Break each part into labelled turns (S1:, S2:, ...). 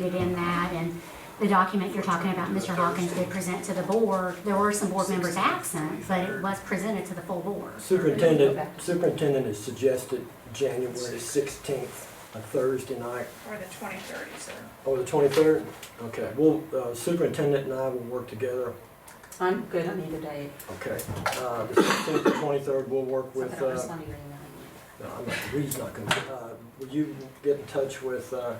S1: included in that, and the document you're talking about, Mr. Hawkins did present to the board. There were some board members absent, but it was presented to the full board.
S2: Superintendent, superintendent has suggested January 16th, a Thursday night,
S3: Or the twenty thirty, so.
S2: or the 23rd? Okay, well, uh, superintendent and I will work together.
S4: I'm good on either day.
S2: Okay. Uh, The 16th, the 23rd, we'll work
S4: So I
S2: with,
S4: don't
S2: uh,
S4: respond to your email.
S2: no, I'm not, Reed's not going to, will you get in touch with uh,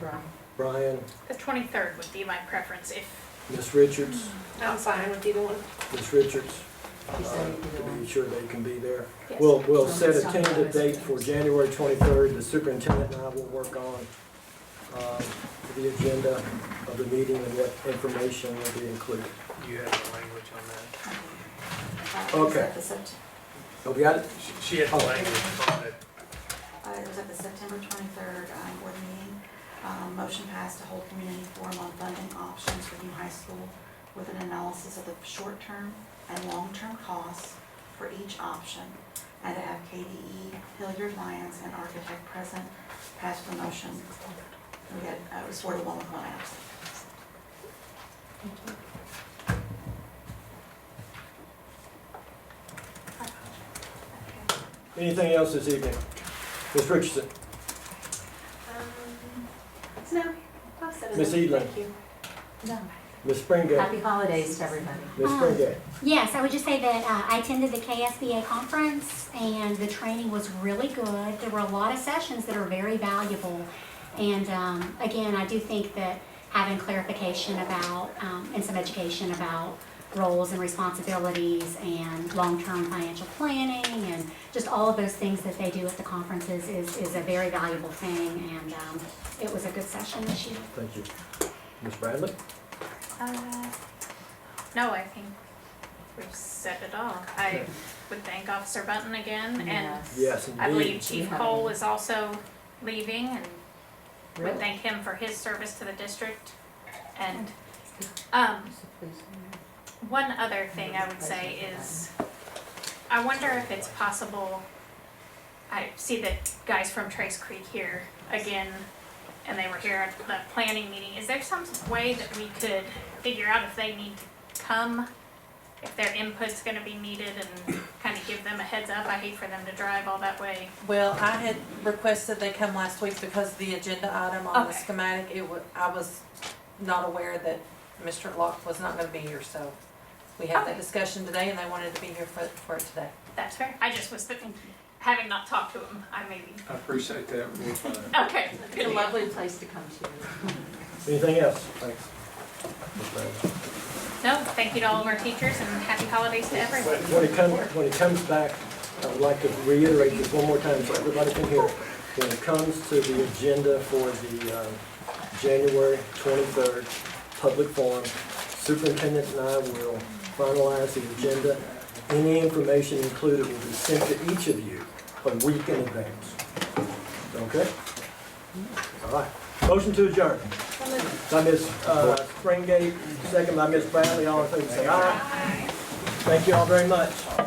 S4: Right.
S2: Brian,
S3: The twenty-third would be my preference if.
S2: Miss Richards,
S3: I'm fine with either one.
S2: Miss Richards?
S4: He
S2: uh,
S4: said either
S2: To be
S4: one.
S2: sure they can be there. We'll, we'll
S4: So
S2: set
S4: let's
S2: a
S4: talk about
S2: tentative
S4: it.
S2: date for January 23rd. The superintendent and I will work on um, the agenda of the meeting and what information will be included.
S5: You have the language on that?
S6: Uh,
S2: Okay.
S6: Was that the Sept,
S2: Oh, we got it?
S5: She- She had the
S2: Oh.
S5: language on it.
S6: uh, it was at the September twenty-third, um, board meeting. Um, motion passed to hold community forum on funding options for new high school with an analysis of the short-term and long-term costs for each option. And to have KDE, Hilliard Lyons, and Architect present, passed the motion. We had, uh, it was four to one with one absent.
S2: Anything else this evening? Ms. Richardson?
S6: Um, No, I've said
S2: Miss Edelin? Ms. Springate?
S4: Happy holidays to everybody.
S2: Ms. Springate?
S1: Yes, I would just say that uh, I attended the KSBA conference and the training was really good. There were a lot of sessions that are very valuable. And um, again, I do think that having clarification about, um, and some education about roles and responsibilities and long-term financial planning and just all of those things that they do at the conferences is, is a very valuable thing. And um, it was a good session this year.
S2: Thank you. Ms. Bradley?
S3: uh, No, I think we've said it all. I would thank Officer Button again, and
S4: Yes.
S2: Yes,
S3: I believe
S2: indeed.
S3: Chief
S4: Yeah.
S3: Cole is also leaving, and would
S4: Really?
S3: thank him for his service to the district. And, um, One other thing I would say is, I wonder if it's possible, I see that guys from Trace Creek here again, and they were here at the planning meeting, is there some way that we could figure out if they need to come? If their input's gonna be needed and kind of give them a heads up, I hate for them to drive all that way.
S7: Well, I had requested they come last week because the agenda item on the
S3: Okay.
S7: schematic, it wa, I was not aware that Mr. Locke was not gonna be here, so we had that
S3: Okay.
S7: discussion today and they wanted to be here for, for it today.
S3: That's fair, I just was thinking, having not talked to them, I maybe,
S5: I appreciate that. We'll find out.
S3: okay.
S4: It's a lovely place to come to.
S2: Anything else? Thanks. Ms. Bradley?
S3: No, thank you to all of our teachers and happy holidays to everyone.
S2: When it comes, when it comes back, I would like to reiterate this one more time so everybody can hear. When it comes to the agenda for the um, January 23rd public forum, superintendent and I will finalize the agenda. Any information included will be sent to each of you a week in advance. Okay? All right. Motion to adjourn. By Ms. uh, Springate, second by Ms. Bradley, all in favor, say aye. Thank you all very much.